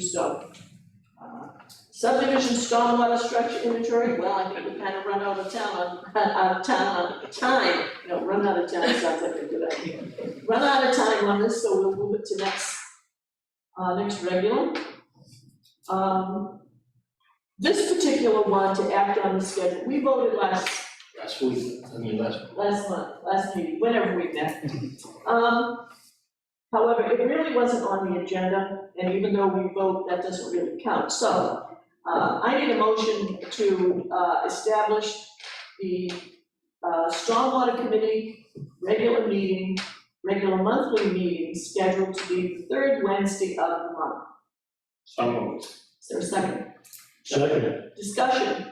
so. uh, Subdivision stormwater structure inventory, well, I think we kind of run out of town, on- out of town, on time, no, run out of time sounds like a good idea. Run out of time on this, so we'll move it to next, uh, next regular. Um, This particular one to act on the schedule, we voted last Last week, I mean, last, last month, last meeting, whenever we met. Um, however, it really wasn't on the agenda, and even though we vote, that doesn't really count, so, uh, I need a motion to, uh, establish the, uh, Stormwater Committee regular meeting, regular monthly meeting scheduled to be the third Wednesday of the month. some of it. Is there a second? Second. Discussion?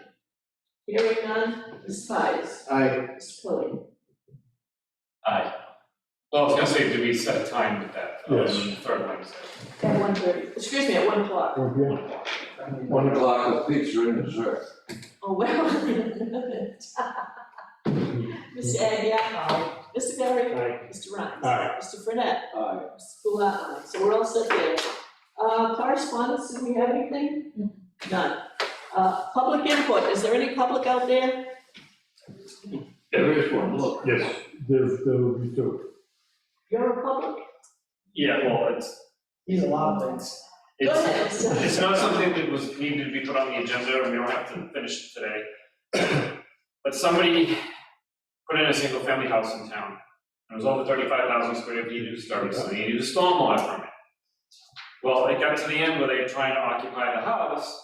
Hearing none, Ms. Pies, I, Ms. Tilly. Well, I was gonna say, do we set a time with that, um, Yes. third Wednesday? At one thirty, excuse me, at one o'clock. Okay. One o'clock with pizza and dessert. Oh, well, Mr. Agia? Mr. Perry? Mr. Ryan? Aye. Mr. Burnett? Aye. Mr. Goulart, aye. So we're all set there. Uh, correspondence, do we have anything? None. Uh, public input, is there any public out there? There is one, look. Yes, there, there will be two. You're a public? Yeah, well, it's, He's a lot of things. Go it's, ahead, Mr. it's not something that was needed to be put on the agenda, and we don't have to finish it today. But somebody put in a single-family house in town, and it was over thirty-five thousand square feet, it was starting, so they needed a stormwater permit. Well, it got to the end where they were trying to occupy the house,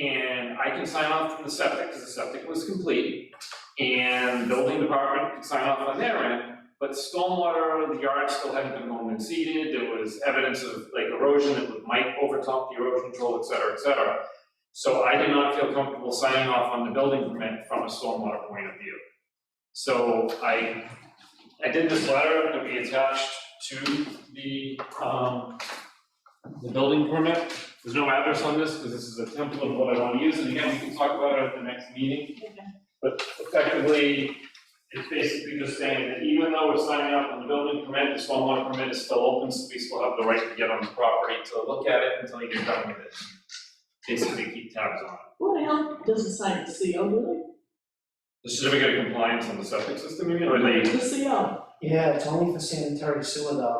and I can sign off from the septic, because the septic was complete, and building department could sign off on their end, But stormwater, the yard still hadn't been mown and seeded, there was evidence of like erosion that might overtop the erosion control, et cetera, et cetera. So I did not feel comfortable signing off on the building permit from a stormwater point of view. So I, I did this letter that we attached to the, um, the building permit. There's no address on this, because this is a template of what I want to use, and again, we can talk about it at the next meeting. But effectively, it's basically just saying that even though we're signing up on the building permit, the stormwater permit is still open, so we still have the right to get on the property to look at it until you get done with it. Basically keep tabs on it. Who the hell doesn't sign the CO, do The certificate of compliance on the septic system, you mean, or they? the, The CO, Yeah, it's only for sanitary sewer though.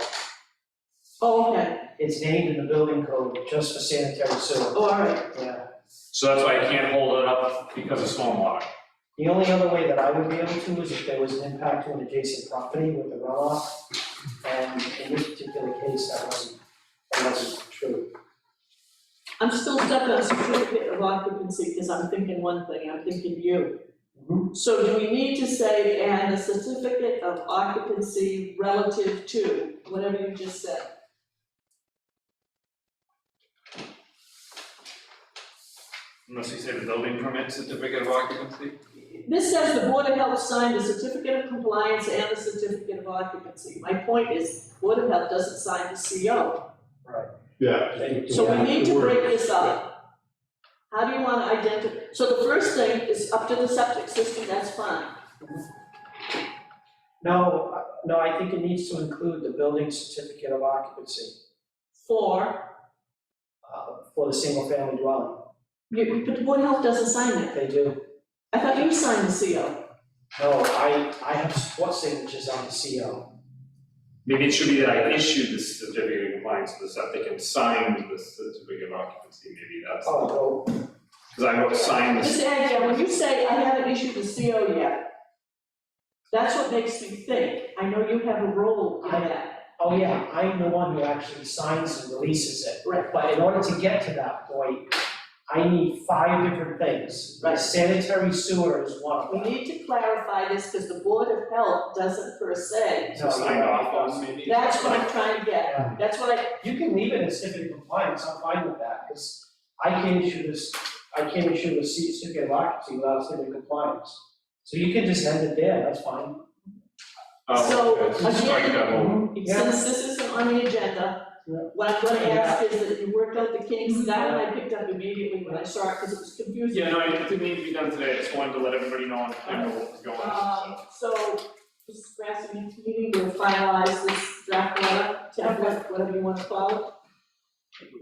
oh, okay, It's named in the building code just for sanitary sewer, oh, all right, yeah. so that's why I can't hold it up because of stormwater. The only other way that I would be able to is if there was an impact to an adjacent property with the runoff. And in this particular case, that wasn't, that wasn't true. I'm still stuck on certificate of occupancy, because I'm thinking one thing, I'm thinking you. So do we need to say, and a certificate of occupancy relative to, whatever you just said? Unless you say the building permit certificate of occupancy. This says the Board of Health signed the certificate of compliance and the certificate of occupancy. My point is, Board of Health doesn't sign the CO. Yeah. So we need to break this Yeah. up. How do you wanna identify, so the first thing is up to the septic system, that's fine. No, I- no, I think it needs to include the building certificate of occupancy For, uh, for the single family dwelling. you- but the Board of Health doesn't sign it. They do I thought you signed the CO. No, I, I have support signatures on the CO. Maybe it should be that I issued the certificate of compliance for the septic and signed the certificate of occupancy, maybe that's, Oh, no, because I wrote signed the Ms. Agia, when you say I haven't issued the CO yet, that's what makes me think, I know you have a role in that. oh yeah, I'm the one who actually signs and releases it. Right. But in order to get to that point, I need five different things. Right. Sanitary sewer is one of We them. need to clarify this, because the Board of Health doesn't per se. No, So signed off on maybe? Oh, That's what I'm trying to get, Yeah. that's what I, You can leave it as certificate of compliance, I'm fine with that, because I can issue this, I can issue a C- certificate of occupancy without certificate of compliance. So you can just end it there, that's fine. Oh, So, okay. Strike that whole- Yeah. since this isn't on the agenda, Yeah. Mm-hmm. what I'm gonna ask is that you worked out the kinks, that one I picked up immediately when I saw it, because it was confusing. Yeah, no, it didn't need to be done today, I just wanted to let everybody know on kind of what was going on, Um, so. so, Mrs. Grassley, you need to finalize this draft letter, template, whatever you wanna call it.